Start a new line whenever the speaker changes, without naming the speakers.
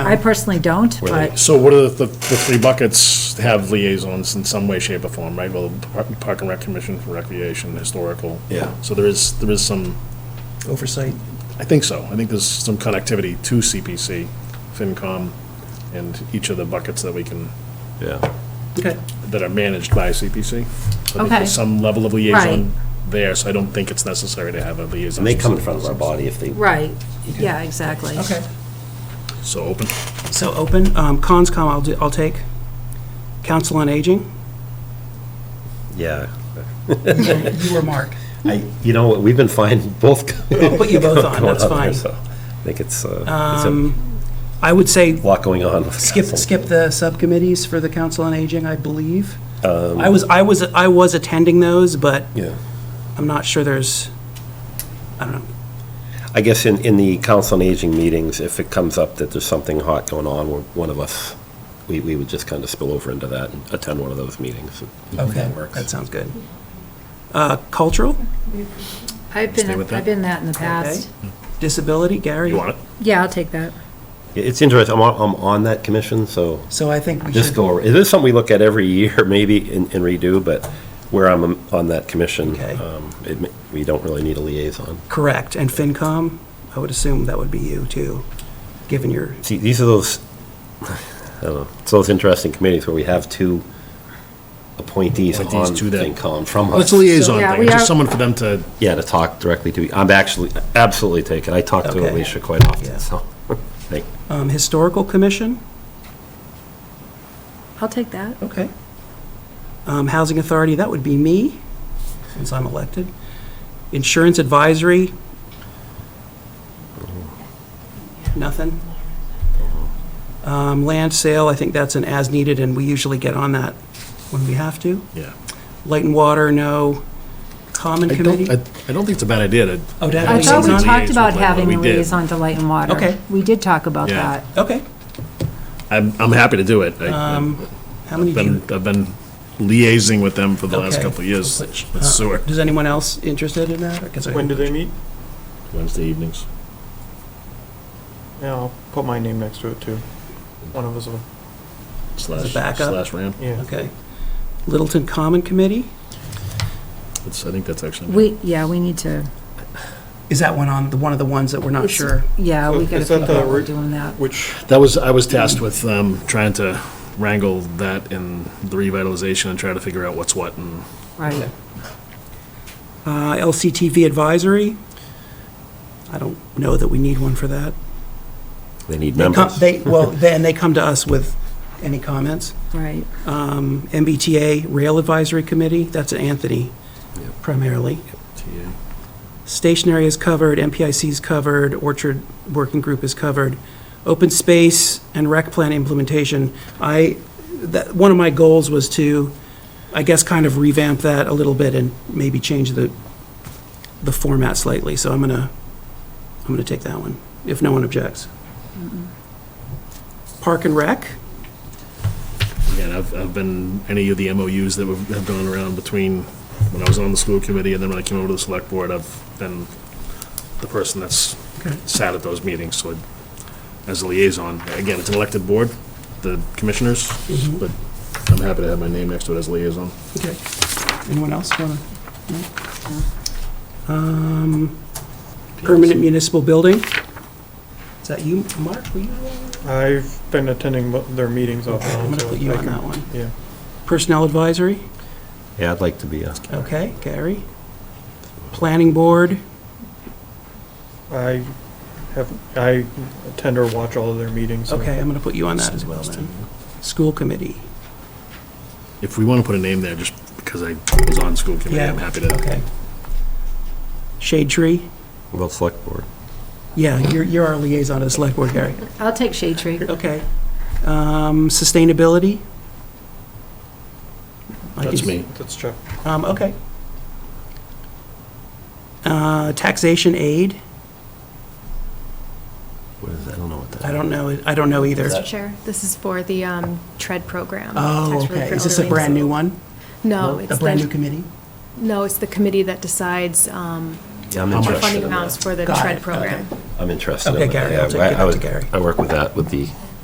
I personally don't, but
So what are the, the three buckets have liaisons in some way, shape, or form, right? Well, Park- Park and Rec Commission for Recreation, Historical.
Yeah.
So there is, there is some,
Oversight.
I think so. I think there's some connectivity to CPC, FinCom, and each of the buckets that we can,
Yeah.
Okay.
that are managed by CPC. So I think
Okay.
there's some level of
Right.
liaison there, so I don't think it's necessary to have a liaison.
And they come in front of our body if they,
right, yeah, exactly.
Okay.
So open.
So open, um, conscom I'll, do- I'll take. Council on Aging,
yeah.
you or Mark?
I, you know, what? we've been fine, both.
I'll put you both on,
going
Oh, that's
on there,
fine.
so I think it's, uh,
I would say
it's a lot going on. with
skip,
council.
skip the subcommittees for the Council on Aging, I believe.
Um,
I was, I was, I was attending those, but
Yeah.
I'm not sure there's, I don't know.
I guess in, in the council on aging meetings, if it comes up that there's something hot going on, where one of us, we, we would just kind of spill over into that and attend one of those meetings. if That
That
works.
sounds good. Uh, cultural,
I've
Stay
been,
with that.
I've been that in the past.
disability, Gary?
You want it?
Yeah, I'll take that.
Yeah, It's interesting, I'm, on- I'm on that commission, so
So I think we should.
this go, it is something we look at every year maybe and and redo, but where I'm on that commission,
Okay.
um, it ma- we don't really need a liaison.
Correct, and FinCom, I would assume that would be you too, given your,
See, these are those, I don't know, it's those interesting committees where we have two appointees on
Appointees to that.
FinCom from us.
Well, it's a liaison
Yeah,
thing,
we
it's
are-
just someone for them to,
Yeah, to talk directly to, I'm actually, absolutely take it. I talk to
Okay.
Alicia quite
Yeah.
often, so. Thank-
um, Historical Commission?
I'll take that.
Okay. Um, Housing Authority, that would be me, since I'm elected. Insurance Advisory? Nothing? Um, Land Sale, I think that's an as-needed, and we usually get on that when we have to.
yeah.
Light and Water, no. Common
I don't, I
Committee?
I don't think it's a bad idea to.
Oh, to have a
I thought we
liaison.
talked about having
We
a
did.
liaison to Light and Water.
Okay.
We did talk about
Yeah.
that.
Okay,
I'm, I'm happy to do it. I-
Um, how many
I've
do you?
been, I've been liaising with them for the last
Okay. Uh,
couple of years with sewer.
Does anyone else interested in that? 'Cause I-
When do they meet?
Wednesday evenings.
Yeah, I'll put my name next to it too. One of us will.
Slash,
backup?
slash RAM.
Yeah.
Okay. Littleton Common Committee?
It's, I think that's actually.
We, yeah, we need to,
Is that one on, the one of the ones that we're not sure?
yeah, we
So
gotta
is that
figure out
the
we're
root-
doing that.
Which,
That was, I was tasked with, um, trying to wrangle that and the revitalization and try to figure out what's what and.
Right.
Uh, LCTV Advisory? I don't know that we need one for that.
They need
They come-
members.
They, well, then they come to us with any comments.
Right.
Um, MBTA Rail Advisory Committee, that's Anthony primarily. Stationary is covered, MPIC is covered, Orchard Working Group is covered. Open space and rec plan implementation, I, that, one of my goals was to, I guess, kind of revamp that a little bit and maybe change the, the format slightly, so I'm gonna, I'm gonna take that one, if no one objects. Park and rec,
Again, I've, I've been, any of the MOUs that have have gone around between when I was on the school committee and then when I came over to the select board, I've been the person that's
Okay.
sat at those meetings, so I- as a liaison, again, it's an elected board, the commissioners,
Mm-hmm.
but I'm happy to have my name next to it as liaison.
okay, anyone else wanna? no? Um, Permanent municipal building, is that you, Mark, were you?
I've been attending mo- their meetings off and on.
I'm going to
so
put you
I
on
can-
that one.
Yeah.
Personnel advisory,
Yeah, I'd like to be a.
okay, Gary. Planning board,
I have, I attend or watch all of their meetings. so-
okay, I'm going to put you on that as well then. School committee,
If we want to put a name there, just because I was on school committee, I'm
Yeah.
happy to.
okay. Shade tree,
Well, select board.
yeah, you're, you're our liaison to the select board, Gary,
I'll take Shade Tree.
okay. Um, Sustainability? I
That's
can-
me.
That's Chuck.
Um, okay. Uh, Taxation aid,
What is that? I don't know what that.
I don't know, I don't know either.
Mr. Chair, this is for the um, TRED program.
Oh,
Tax Relief
okay,
for
is this a
Elderly.
brand new one?
No,
A
it's
brand new
the,
committee?
no, it's the committee that decides um,
Yeah, I'm
How much?
the
interested
funding
in
amounts
that.
for the
Got it,
TRED
okay.
program.
I'm interested. in
Okay,
that.
Gary,
Yeah,
I'll take-
I- I
give that to
would-
Gary.
I work with that, with the